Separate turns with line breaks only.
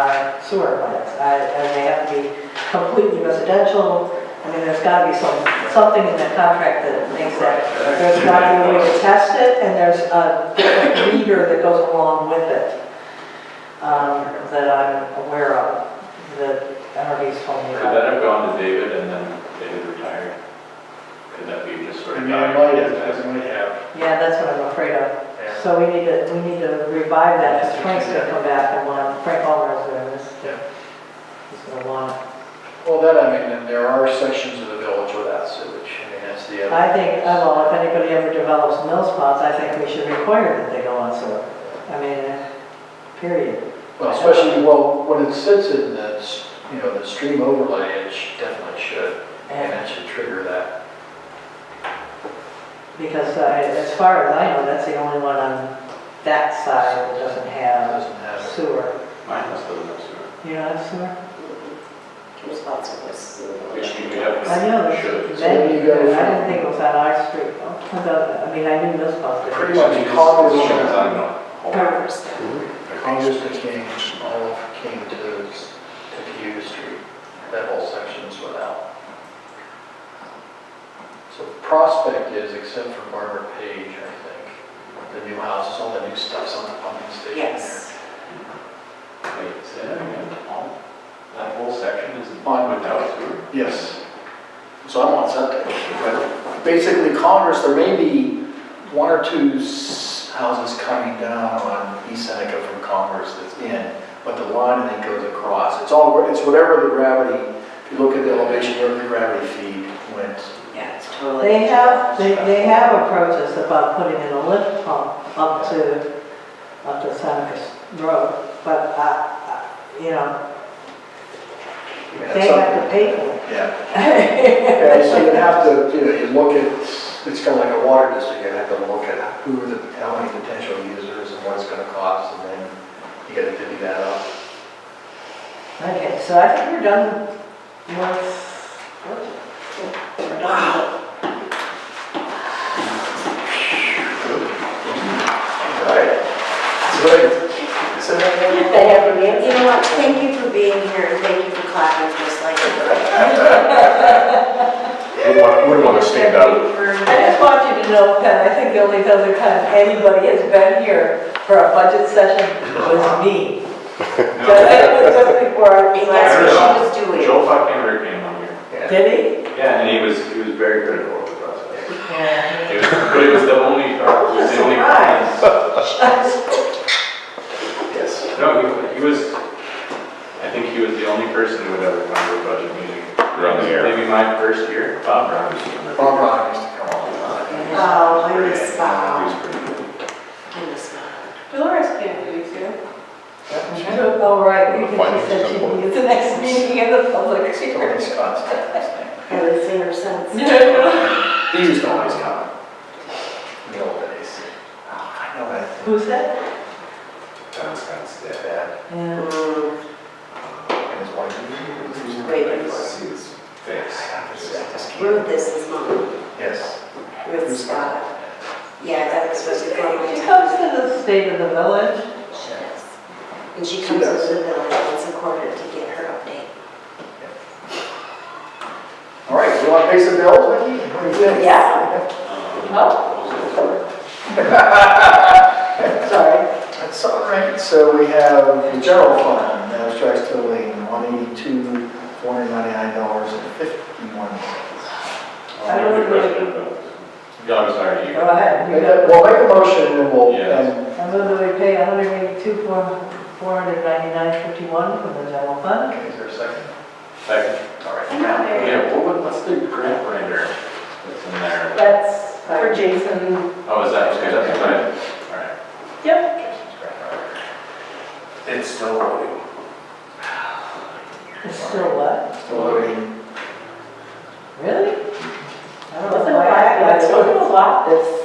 uh, sewer plants. I- And they have to be completely residential. I mean, there's got to be some, something in the contract that makes that. There's got to be a way to test it, and there's a different reader that goes along with it um, that I'm aware of, that NRV's told me
Could
about.
that have gone to David and then David retired? Could that be just sort
I
of?
mean, it might have, because it might have,
Yeah, that's what I'm afraid of.
yeah.
So we need to, we need to revive that, because Frank's gonna come back and want, Frank Palmer is doing this.
Yeah.
He's gonna want,
Well, that, I mean, and there are sections of the village without sewage, I mean, that's the other.
I think, uh, well, if anybody ever develops mill spots, I think we should require that they go on sewer. I mean, uh, period.
Well, especially, well, when it sits in the, s- you know, the stream overlay, it sh- definitely should, and
And
it should trigger that.
because uh, as far as I know, that's the only one on that side that doesn't
It
have
doesn't have,
sewer.
Mine has those up sewer.
You don't have sewer?
responsiveness.
Which means we have.
I know, that's-
Should.
So where do you go
that- I didn't
from-
think it was on our street. Oh, the- I mean, I knew mill spots.
Pretty much Congress-
It shows on the whole-
Farmers.
Congress to King, all of King to, to Hughes Street, that whole section is without. So Prospect is, except for Barbara Page, I think, the new houses, all the new stuff's on the pumping station there.
Yes.
Wait, say that again. All- That whole section is
On-
without sewer?
Yes. So I'm on septic. Basically, Congress, there may be one or two s- houses coming down on East Seneca from Congress that's in, but the line then goes across. It's all, it's whatever the gravity, if you look at the elevation, wherever the gravity feed went.
Yeah, it's totally.
They have, they, they have approaches about putting in a lift pump up to, up to Seneca Road, but, uh, you know,
I mean,
they
it's
have to
something-
pay for it.
Yeah. And so you have to, you know, you look at, it's kind of like a water district, you have to look at who are the, how many potential users and what it's gonna cost, and then you gotta divvy that up.
Okay, so I think we're done with, we're done with
Right. Good. So then what do you
They have, you know what, thank you for being here, and thank you for clapping just like.
Wouldn't want, wouldn't want to stand out.
I just want you to know, Ken, I think the only other time anybody has been here for a budget session was me. Just just before I was
And that's
like,
what she was doing.
Joe Buckner came on here.
did he?
Yeah, and he was, he was very critical of the process.
Yeah.
It was, but it was the only, it was the only.
Surprise.
Yes.
No, he, he was, I think he was the only person who would ever come to a budget meeting.
Around the air.
Maybe my first year, Bob Brown was doing it.
Bob Rock used to come on.
Oh, I
Pretty-
miss Bob.
he was pretty good.
I miss Bob.
Dolores can't do it too.
Oh, right, because she said she would be at the next meeting of the public
Tony
hearing.
Scott's dad,
I haven't seen her since.
his name. He used to always come in the old days. Oh, I know that.
Who's that?
Tom Scott's
His
dad.
dad
Yeah.
Mm,
and his wife.
I
Wait, wait,
could
wait.
see his face.
I just can't.
Ruth is his mom,
Yes.
Ruth Scott. Yeah, that was supposed to come.
She comes to the state of the village.
She does. And she comes
does.
to the village once a quarter to get her update.
All right, you want to pay some bills, Vicky? What do you think?
Yeah.
Oh.
Sorry.
That's all right. So we have the general fund, abstract totaling $182,499.51.
I don't
Good
really-
question, though. Yeah, I'm sorry, you.
Go ahead. You
And
got
then
it.
We'll make a motion and we'll,
Yeah.
and
I move that we pay $182,499.51 from the general fund.
Okay, is there a second?
Second.
All right.
I'm not there.
Yeah, what, would- what's the grant writer that's in there?
That's for Jason.
Oh, is that, okay, that's right. All right.
Yep.
It's still loading.
It's still what?
Still loading.
Really? I don't know
Wasn't
why
a lot,
I got
it
it.
wasn't a lot this
Oh, Um,